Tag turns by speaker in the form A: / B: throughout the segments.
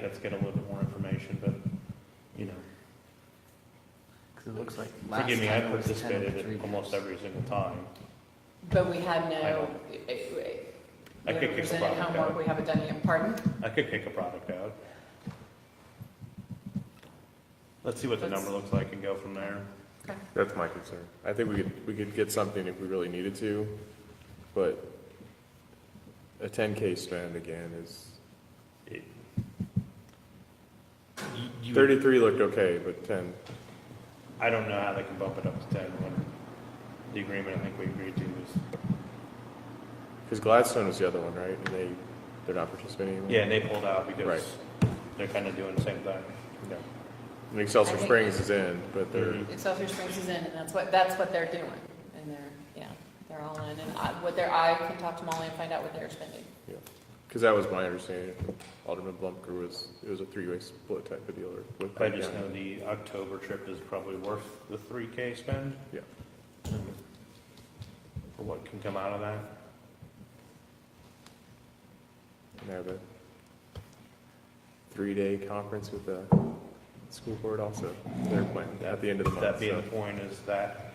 A: That's got a little bit more information, but, you know,
B: Because it looks like last
A: forgive me, I
B: time it was 10
A: participated
B: to three
A: in almost
B: years.
A: every single time.
C: But we have
A: I
C: no,
A: don't-
C: eh, eh,
A: I could kick
C: we haven't
A: a
C: presented
A: product
C: homework,
A: out.
C: we haven't done yet, pardon?
A: I could kick a product out. Let's see what the
C: Let's-
A: number looks like and go from there.
D: That's my concern. I think we could, we could get something if we really needed to, but a ten K spend again is,
A: It- you- you-
D: thirty-three looked okay, but ten,
A: I don't know how they can bump it up to ten when the agreement I think we agreed to was,
D: because Gladstone was the other one, right? And they, they're not participating anymore?
A: yeah, and they pulled out because
D: Right.
A: they're kind of doing the same thing.
D: Yeah. And Excelsior
C: I think-
D: Springs is in, but they're,
A: Mhm.
C: Excelsior Springs is in, and that's what, that's what they're doing, and they're, yeah, they're all in, and I, what their, I can talk to Molly and find out what they're spending.
D: because that was my understanding. Alderman Blumker was, it was a three-way split type of deal or with.
A: I just know the October trip is probably worth the three K spend.
D: Yeah.
A: For what can come out of that.
D: And have a three-day conference with the school board also. They're planning at the end of the month.
A: That being
D: so-
A: the point is that,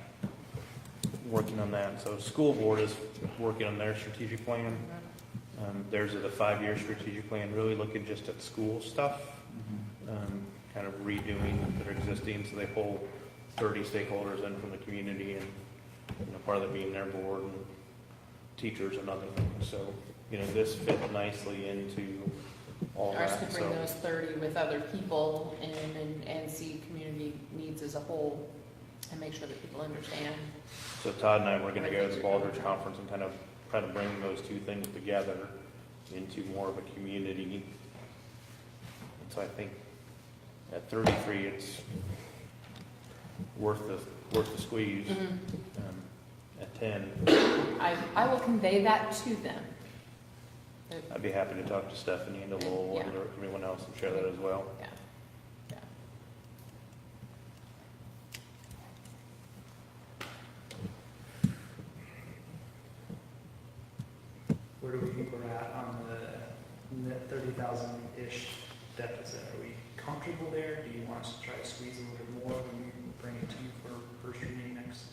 A: working on that, so school board is working on their strategic plan. Um, Theirs is a five-year strategic plan, really looking just at school stuff, um, kind of redoing their existing, so they pull thirty stakeholders in from the community and, you know, part of it being their board and teachers and other things. So, you know, this fit nicely into all
C: Ours could
A: that,
C: bring
A: so.
C: those thirty with other people in and, and see community needs as a whole, and make sure that people understand.
A: So Todd and I, were gonna go to the Baldridge Conference and kind of try to bring those two things together into more of a community. And so I think at thirty-three, it's worth the, worth the squeeze. Um, At ten,
C: I, I will convey that to them. That-
A: I'd be happy to talk to Stephanie and to Lowell and everyone else and share that as well.
C: Yeah, yeah.
E: Where do we think we're at on the net thirty thousand-ish deficit? Are we comfortable there? Do you want us to try to squeeze a little bit more when we bring it to you for first reading next,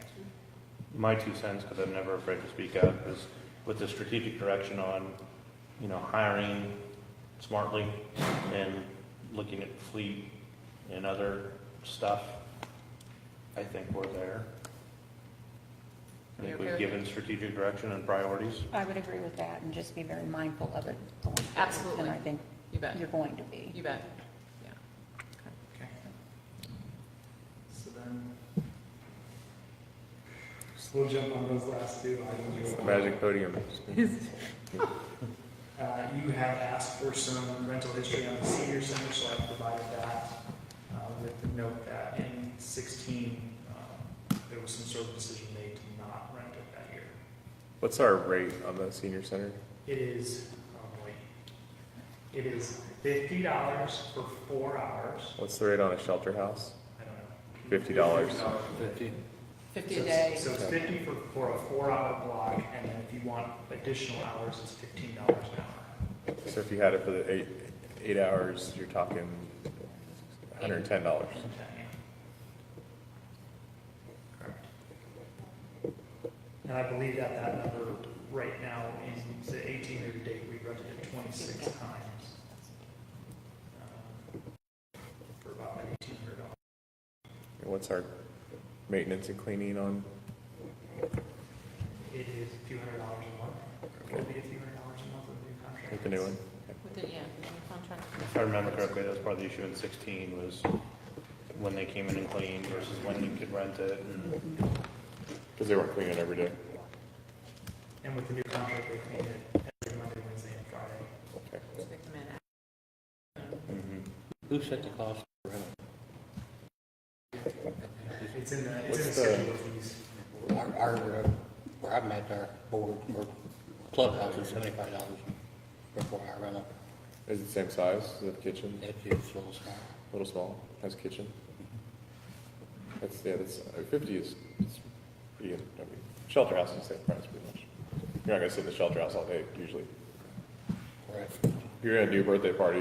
E: next week?
A: my two cents, because I'm never afraid to speak up, is with the strategic direction on, you know, hiring smartly and looking at fleet and other stuff, I think we're there. I
C: You're
A: think
C: okay
A: we've
C: with
A: given strategic direction and priorities.
F: I would agree with that and just be very mindful of it. going forward.
C: Absolutely.
F: And I think
C: You bet,
F: you're going to be.
C: you bet.
E: Okay. So then.
G: So we'll jump on those last two items.
D: Magic podium.
E: Uh, you have asked for some rental history on the senior center, so I provided that, uh, with the note that in sixteen, um, there was some sort of decision made to not rent it that year.
D: What's our rate on the senior center?
E: It is, oh boy, it is fifty dollars for four hours.
D: What's the rate on a shelter house?
E: I don't know.
D: Fifty dollars.
C: Fifty
E: So
C: a
E: it's-
C: day,
E: So it's fifty for, for a four-hour block, and then if you want additional hours, it's fifteen dollars an hour.
D: So if you had it for the eight, eight hours, you're talking hundred and ten dollars.
E: And I believe that that number right now is the eighteen year to date, we rented it twenty-six times. um, For about eighteen hundred dollars.
D: What's our maintenance and cleaning on?
E: It is a few hundred dollars a month. It'll be a few hundred dollars a month with the new contract.
D: With the new one?
C: with the, yeah, with the contract.
A: If I remember correctly, that was part of the issue in sixteen was when they came in and cleaned versus when you could rent it. and-
D: Mm-hmm. Because they weren't cleaning every day.
E: And with the new contract, they clean it every Monday, Wednesday, and Friday.
D: Okay.
C: Pick them in.
A: Mhm.
B: Who set the cost?
E: It's in the, it's in the
D: What's the-
E: schedule of fees.
G: Our, our, uh, where I'm at, our board, our clubhouse is seventy-five dollars for four-hour rental.
D: Is it the same size as the kitchen?
G: That's it, so it's not.
D: A little small, has kitchen? That's, yeah, that's, uh, fifty is, it's pretty, good. I mean, shelter house is the same price pretty much. You're not gonna sit in the shelter house all day usually.
G: Right.
D: If you're gonna do a birthday party,